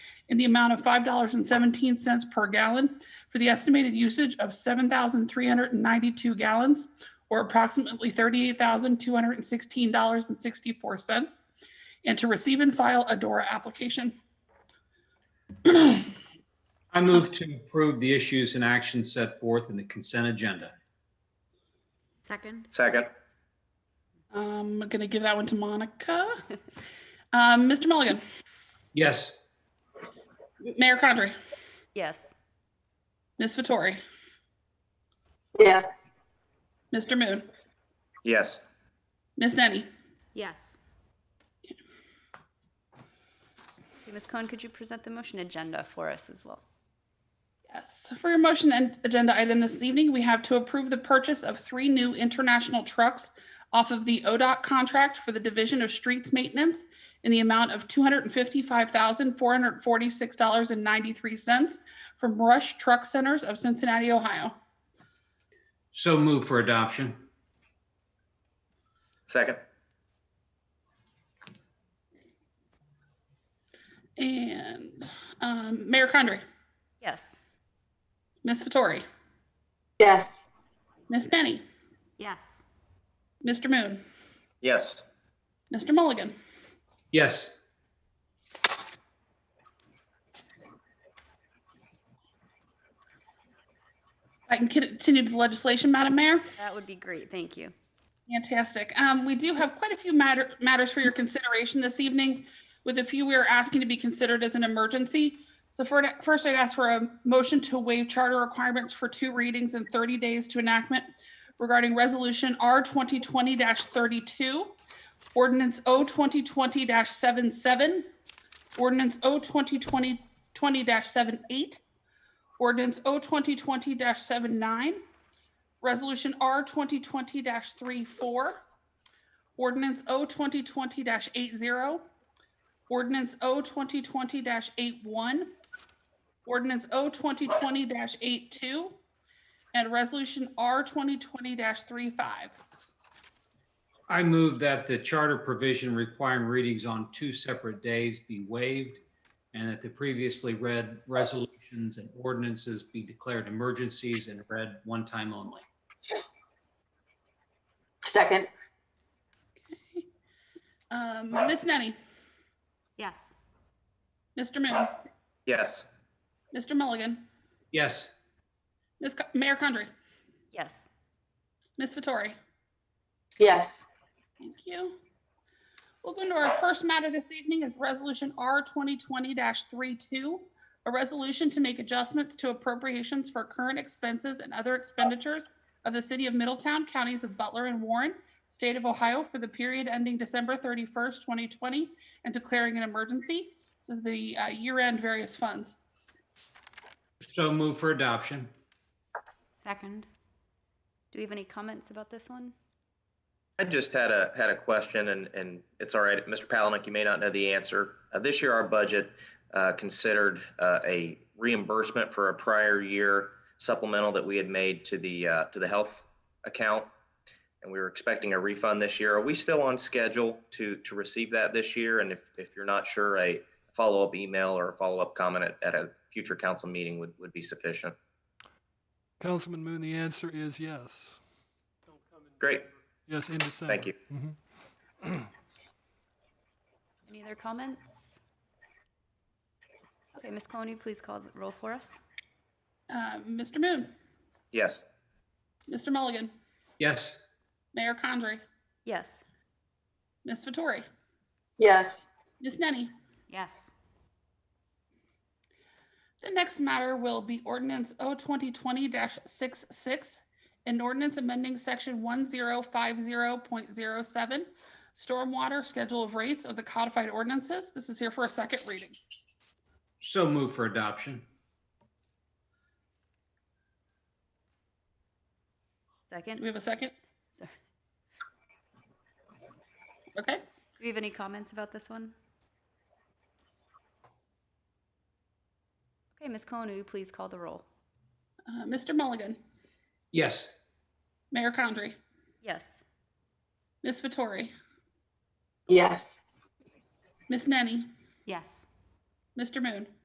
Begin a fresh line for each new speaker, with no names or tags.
in the amount of $5.17 per gallon for the estimated usage of 7,392 gallons, or approximately $38,216.64, and to receive and file a DORA application.
I move to approve the issues and actions set forth in the consent agenda.
Second.
Second.
I'm going to give that one to Monica. Um, Mr. Mulligan,
Yes,
Mayor Condrey,
Yes.
Ms. Vittori,
yes,
Mr. Moon,
Yes.
Ms. Nenny.
Yes. Okay, Ms. Cohen, could you present the motion agenda for us as well?
Yes, for your motion and agenda item this evening, we have to approve the purchase of three new international trucks off of the ODOT contract for the Division of Streets Maintenance in the amount of two hundred and fifty-five thousand, four hundred and forty-six dollars and ninety-three cents from Rush Truck Centers of Cincinnati, Ohio.
so move for adoption.
Second.
And um, Mayor Condrey,
Yes.
Ms. Vittori,
yes,
Ms. Nenny,
Yes.
Mr. Moon,
Yes.
Mr. Mulligan.
Yes,
I can continue to the legislation, Madam Mayor.
That would be great. Thank you.
Fantastic. Um, we do have quite a few matter, matters for your consideration this evening, with a few we are asking to be considered as an emergency. So for, first, I'd ask for a motion to waive charter requirements for two readings and 30 days to enactment regarding Resolution R 2020-32, Ordinance O 2020-77, Ordinance O 2020-78, Ordinance O 2020-79, Resolution R twenty twenty 34 Ordinance O 2020 eight zero. Ordinance O 2020 eight one. Ordinance O 2020 eight two. And Resolution R twenty twenty 35
I move that the charter provision requiring readings on two separate days be waived and that the previously read resolutions and ordinances be declared emergencies and read one time only.
second,
Um, Ms. Nenny,
Yes.
Mr. Moon,
Yes.
Mr. Mulligan,
Yes,
Ms. Co- Mayor Condrey,
Yes.
Ms. Vittori.
yes,
Thank you. We'll go into our first matter this evening is Resolution R 2020-32, a resolution to make adjustments to appropriations for current expenses and other expenditures of the City of Middletown, Counties of Butler and Warren, State of Ohio for the period ending December 31st, 2020, and declaring an emergency. This is the uh, year-end various funds.
so move for adoption.
Second. Do we have any comments about this one?
I just had a, had a question and, and it's all right. Mr. Palanick, you may not know the answer. Uh, This year, our budget uh, considered uh, a reimbursement for a prior year supplemental that we had made to the, uh, to the health account. And we were expecting a refund this year. Are we still on schedule to, to receive that this year? And if, if you're not sure, a follow-up email or a follow-up comment at, at a future council meeting would, would be sufficient.
Councilman Moon, the answer is yes.
Great,
Yes, in December.
thank you.
Mhm.
Any other comments? Okay, Ms. Cohen, will you please call the roll for us?
Uh, Mr. Moon,
Yes.
Mr. Mulligan,
Yes,
Mayor Condrey,
Yes.
Ms. Vittori,
yes,
Ms. Nenny.
Yes.
The next matter will be ordinance O 2020-66, an ordinance amending section 1050.07, stormwater schedule of rates of the codified ordinances. This is here for a second reading.
so move for adoption.
Second.
Do we have a second? Okay,
Do we have any comments about this one? Okay, Ms. Cohen, will you please call the roll?
uh, Mr. Mulligan,
Yes,
Mayor Condrey,
Yes.
Ms. Vittori,
yes,
Ms. Nenny,
Yes.
Mr. Moon,